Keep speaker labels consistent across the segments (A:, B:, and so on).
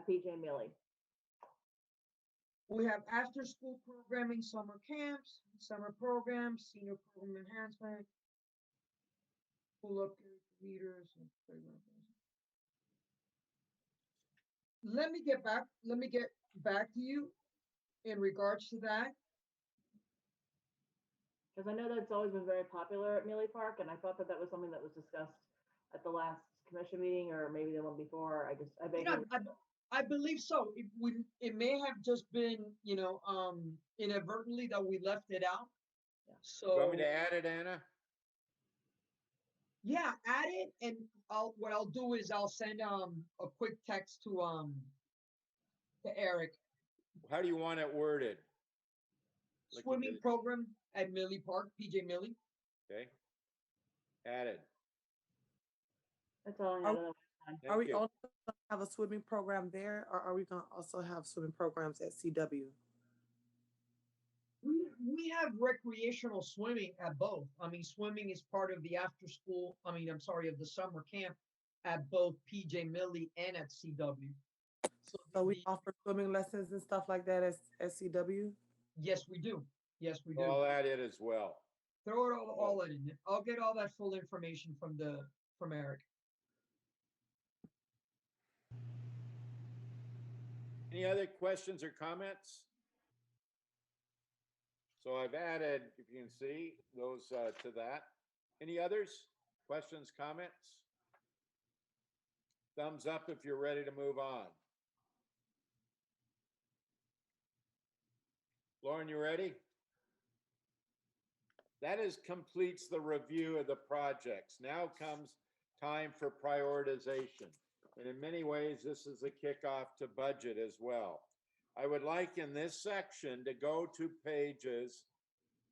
A: BJ Mealy.
B: We have after-school programming, summer camps, summer programs, senior program enhancement, school upgrade for leaders and playground. programs. Let me get back, let me get back to you in regards to that.
A: Because I know that's always been very popular at Mealy Park, and I thought that that was something that was discussed at the last commission meeting, or maybe the one before, I just, I
B: You know,
A: vaguely.
B: I, I believe so. It would, it may have just been, you know, um, inadvertently that we left it out.
A: Yeah.
B: So.
C: Want me to add it, Anna?
B: Yeah, add it and I'll, what I'll do is I'll send, um, a quick text to, um, to Eric,
C: How do you want it worded? Like you
B: swimming
C: did.
B: program at Millie Park, PJ Millie.
C: Okay? Added.
A: That's all I
D: Are-
A: had.
B: Oh.
A: otherwise-
D: Are
C: Thank
D: we
C: you.
D: also have a swimming program there, or are we gonna also have swimming programs at CW?
B: We, we have recreational swimming at both. I mean, swimming is part of the after school, I mean, I'm sorry, of the summer camp at both PJ Millie and at CW.
D: So we
B: the-
D: offer swimming lessons and stuff like that at, at CW?
B: Yes, we do. Yes, we do.
C: I'll add it as well.
B: Throw it all, all in. I'll get all that full information from the, from Eric.
C: Any other questions or comments? So I've added, if you can see, those uh, to that. Any others? Questions, comments? Thumbs up if you're ready to move on. Lauren, you ready? That is completes the review of the projects. Now comes time for prioritization. And in many ways, this is a kickoff to budget as well. I would like in this section to go to pages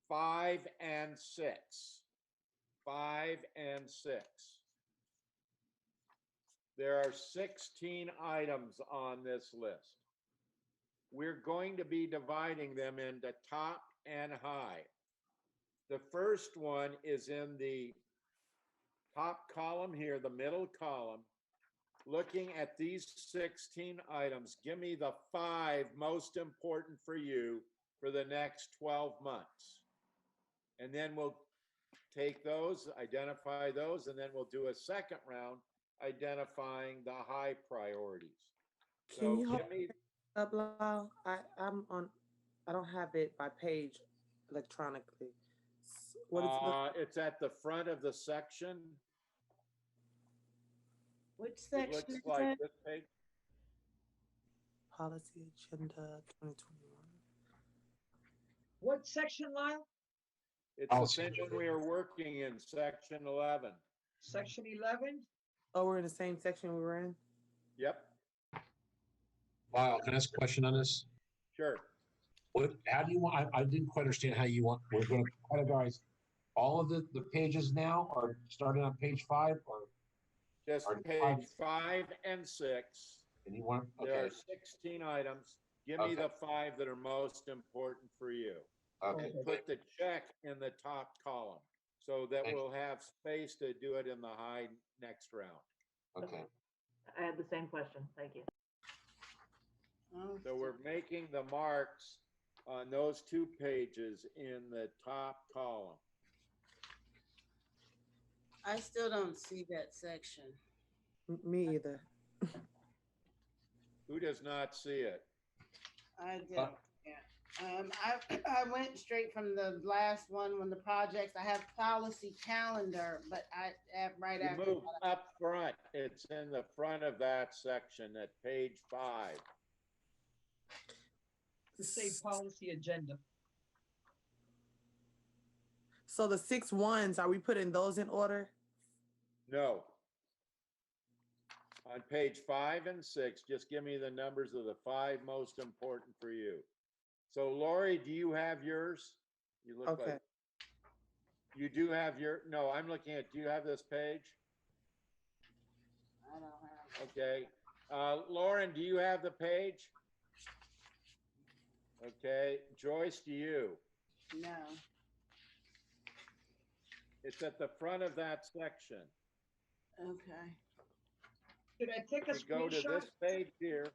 C: five and six. Five and six. There are 16 items on this list. We're going to be dividing them into top and high. The first one is in the top column here, the middle column looking at these 16 items, give me the five most important for you for the next 12 months. And then we'll take those, identify those, and then we'll do a second round identifying the high priorities.
D: Can
C: So
D: you hold
C: give me,
D: up, Lyle? I, I'm on, I don't have it by page electronically. S- What is, the-
C: uh, it's at the front of the section.
E: Which
C: It
E: section
C: looks
E: is that?
C: like this page.
D: policy agenda twenty twenty-one?
B: What section, Lyle?
C: It's the section we are working in, section 11.
B: Section eleven?
D: Oh, we're in the same section we were in?
C: Yep,
F: Lyle, can I ask a question on this?
C: sure.
F: What, how do you want, I, I didn't quite understand how you want, we're gonna categorize all of the, the pages now or starting on page five or,
C: Just
F: Pardon?
C: page five and six.
F: and you want,
C: There
F: okay,
C: are sixteen items. Give me
F: Okay.
C: the five that are most important for you.
F: okay.
C: Put the check in the top column so that
F: Thank you.
C: we'll have space to do it in the high next round.
F: okay.
A: I had the same question, thank you.
E: Oh,
C: So we're making the marks on those two pages in the top column.
E: I still don't see that section.
D: M- Me either.
C: Who does not see it?
E: I don't, yeah. Um, I, I went straight from the last one, when the projects, I have policy calendar, but I, at, right
C: You
E: after.
C: move
E: that,
C: up front. It's in the front of that section at page five.
B: To say policy agenda.
D: So the six ones, are we putting those in order?
C: No. On page five and six, just give me the numbers of the five most important for you. So Lori, do you have yours? You look
D: Okay.
C: like, you do have your, no, I'm looking at, do you have this page?
E: I don't have,
C: Okay. Uh, Lauren, do you have the page? Okay, Joyce, do you?
E: no.
C: It's at the front of that section.
E: Okay.
B: Did I take a
C: We go to
B: screenshot?
C: this page here.